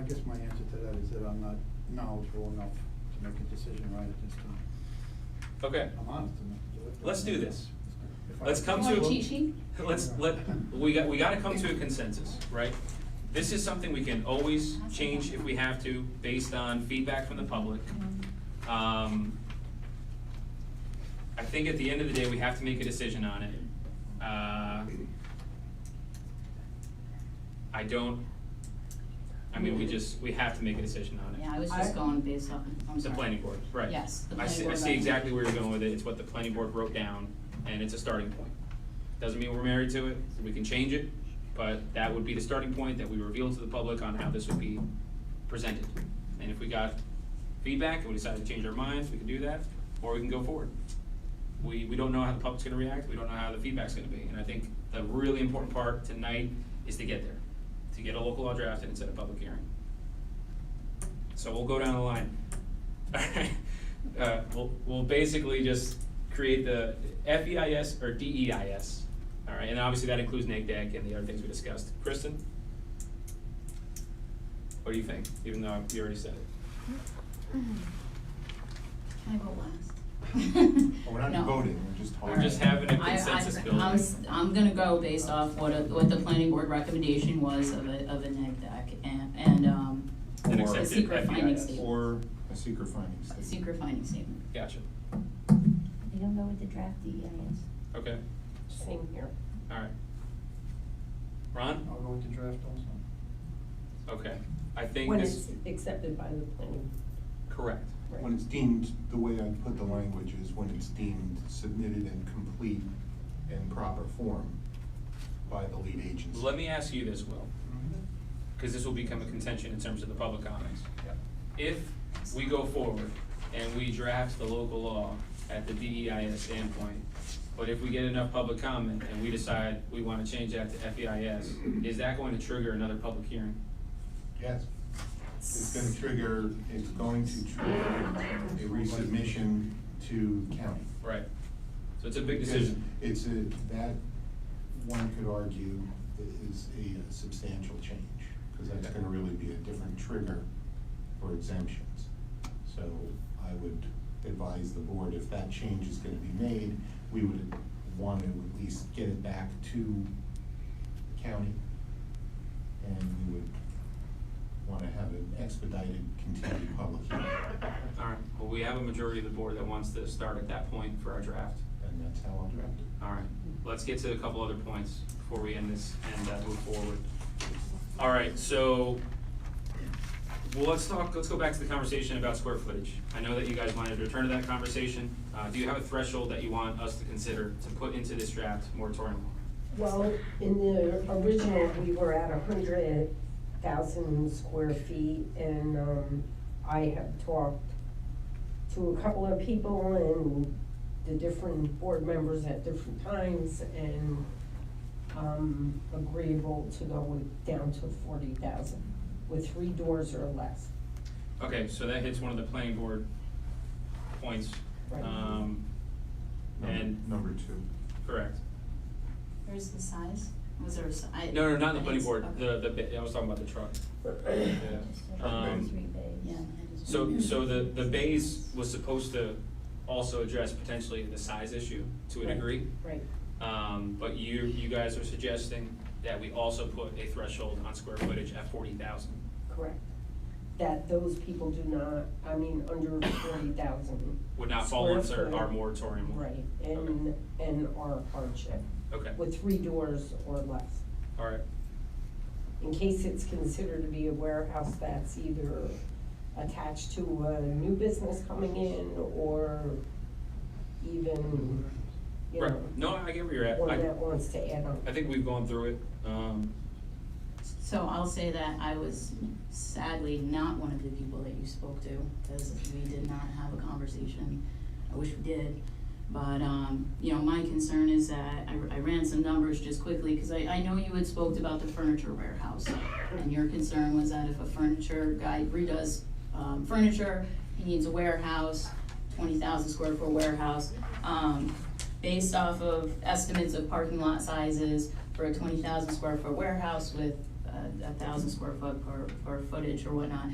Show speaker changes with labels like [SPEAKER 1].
[SPEAKER 1] guess my answer to that is that I'm not knowledgeable enough to make a decision right at this time.
[SPEAKER 2] Okay,
[SPEAKER 1] I'm honest enough to do it. but-
[SPEAKER 2] Let's do this.
[SPEAKER 1] If I-
[SPEAKER 2] let's come
[SPEAKER 3] You
[SPEAKER 2] to.
[SPEAKER 3] want a cheat sheet?
[SPEAKER 2] Let's, let, we got, we gotta come to a consensus, right? This is something we can always change if we have to, based on feedback from the public.
[SPEAKER 3] Mm. Mm-hmm.
[SPEAKER 2] Um, I think at the end of the day, we have to make a decision on it. Uh, I don't, I mean, we just, we have to make a decision on it.
[SPEAKER 3] Yeah, I was just
[SPEAKER 4] I-
[SPEAKER 3] going based off, I'm
[SPEAKER 2] The
[SPEAKER 3] sorry.
[SPEAKER 2] planning board, right.
[SPEAKER 3] Yes,
[SPEAKER 2] I
[SPEAKER 3] the planning
[SPEAKER 2] see, I
[SPEAKER 3] board
[SPEAKER 2] see
[SPEAKER 3] recommendation.
[SPEAKER 2] exactly where you're going with it, it's what the planning board wrote down, and it's a starting point. Doesn't mean we're married to it, we can change it, but that would be the starting point that we reveal to the public on how this would be presented. And if we got feedback, and we decide to change our minds, we can do that, or we can go forward. We, we don't know how the public's gonna react, we don't know how the feedback's gonna be, and I think the really important part tonight is to get there, to get a local law drafted and set a public hearing. So we'll go down the line. Alright, uh, we'll, we'll basically just create the FEIS or E DEIS. Alright, and obviously that includes NAGDAC and the other things we discussed. Kristen? What do you think, even though you already said it?
[SPEAKER 3] Can I go last?
[SPEAKER 5] Well, We're not
[SPEAKER 3] No.
[SPEAKER 5] voting, we're just talking.
[SPEAKER 2] We're just having a
[SPEAKER 3] I- I-
[SPEAKER 2] consensus building.
[SPEAKER 3] I'm, s- I'm gonna go based off what, a- what the planning board recommendation was of a, of a neg deck and, and, um,
[SPEAKER 2] An
[SPEAKER 3] the
[SPEAKER 2] accepted E
[SPEAKER 3] secret finding
[SPEAKER 2] FEIS.
[SPEAKER 3] statement.
[SPEAKER 5] Or a secret finding
[SPEAKER 3] The
[SPEAKER 5] statement.
[SPEAKER 3] Secret finding statement.
[SPEAKER 2] Gotcha,
[SPEAKER 6] You don't go with the draft E DEIS.
[SPEAKER 2] okay,
[SPEAKER 6] Same here.
[SPEAKER 2] alright. Ron?
[SPEAKER 1] I'll go with the draft also.
[SPEAKER 2] Okay, I think
[SPEAKER 7] When
[SPEAKER 2] this,
[SPEAKER 7] it's accepted by the planning.
[SPEAKER 2] correct,
[SPEAKER 7] right.
[SPEAKER 5] When it's deemed, the way I put the language is when it's deemed submitted in complete and proper form by the lead agency.
[SPEAKER 2] let me ask you this, Will. because this will become a contention in terms of the public comments. If we go forward and we draft the local law at the DEIS standpoint, but if we get enough public comment and we decide we wanna change that to FEIS, is that going to trigger another public hearing?
[SPEAKER 5] Yes. It's gonna trigger, it's going to trigger a resubmission to county.
[SPEAKER 2] Right. So it's a big
[SPEAKER 5] Because
[SPEAKER 2] decision.
[SPEAKER 5] It's a, that, one could argue, i- is a substantial change, because that's gonna really be a different trigger for exemptions. So I would advise the board, if that change is gonna be made, we would want to at least get it back to the county. And we would wanna have an expedited continued public hearing,
[SPEAKER 2] Alright, well, we have a majority of the board that wants to start at that point for our draft.
[SPEAKER 5] and that's how I'll direct it.
[SPEAKER 2] All right, let's get to a couple other points before we end this and uh, move forward. All right, so, well, let's talk, let's go back to the conversation about square footage. I know that you guys wanted to return to that conversation. Uh, Do you have a threshold that you want us to consider to put into this draft moratorium?
[SPEAKER 7] Well, in the original, we were at a hundred thousand square feet and, um, I have talked to a couple of people and the different board members at different times and, um, agreeable to go with, down to forty thousand with three doors or less.
[SPEAKER 2] Okay, so that hits one of the planning board points.
[SPEAKER 7] Right.
[SPEAKER 2] Um,
[SPEAKER 5] Number-
[SPEAKER 2] And,
[SPEAKER 5] Number two.
[SPEAKER 2] correct.
[SPEAKER 3] Where's the size? Was there a si- I-
[SPEAKER 2] No, no, not the
[SPEAKER 3] I
[SPEAKER 2] planning
[SPEAKER 3] didn't-
[SPEAKER 2] board,
[SPEAKER 3] okay.
[SPEAKER 2] the, the, bi- I was talking about the truck.
[SPEAKER 6] Just
[SPEAKER 2] Yeah.
[SPEAKER 6] a
[SPEAKER 2] Um,
[SPEAKER 6] three bays.
[SPEAKER 3] Yeah. I just-
[SPEAKER 2] So, so the, the bays was supposed to also address potentially the size issue to a
[SPEAKER 7] Right.
[SPEAKER 2] degree.
[SPEAKER 7] Right.
[SPEAKER 2] Um, but you, you guys are suggesting that we also put a threshold on square footage at forty thousand.
[SPEAKER 7] Correct. That those people do not, I mean, under forty thousand.
[SPEAKER 2] Would not fall
[SPEAKER 7] Square
[SPEAKER 2] under
[SPEAKER 7] foot.
[SPEAKER 2] our moratorium.
[SPEAKER 7] Right, and, and are hardship,
[SPEAKER 2] Okay,
[SPEAKER 7] with three doors or less.
[SPEAKER 2] all right,
[SPEAKER 7] In case it's considered to be a warehouse that's either attached to a new business coming in or even, you
[SPEAKER 2] right, no,
[SPEAKER 7] know,
[SPEAKER 2] I get where you're at,
[SPEAKER 7] one that
[SPEAKER 2] I,
[SPEAKER 7] wants to add on.
[SPEAKER 2] I think we've gone through it, um,
[SPEAKER 3] So I'll say that I was sadly not one of the people that you spoke to, because we did not have a conversation. I wish we did, but, um, you know, my concern is that, I, I ran some numbers just quickly, because I, I know you had spoke about the furniture warehouse. And your concern was that if a furniture guy redoes, um, furniture, he needs a warehouse, twenty thousand square foot warehouse. Um, based off of estimates of parking lot sizes for a twenty thousand square foot warehouse with, uh, a, a thousand square foot or, or footage or whatnot,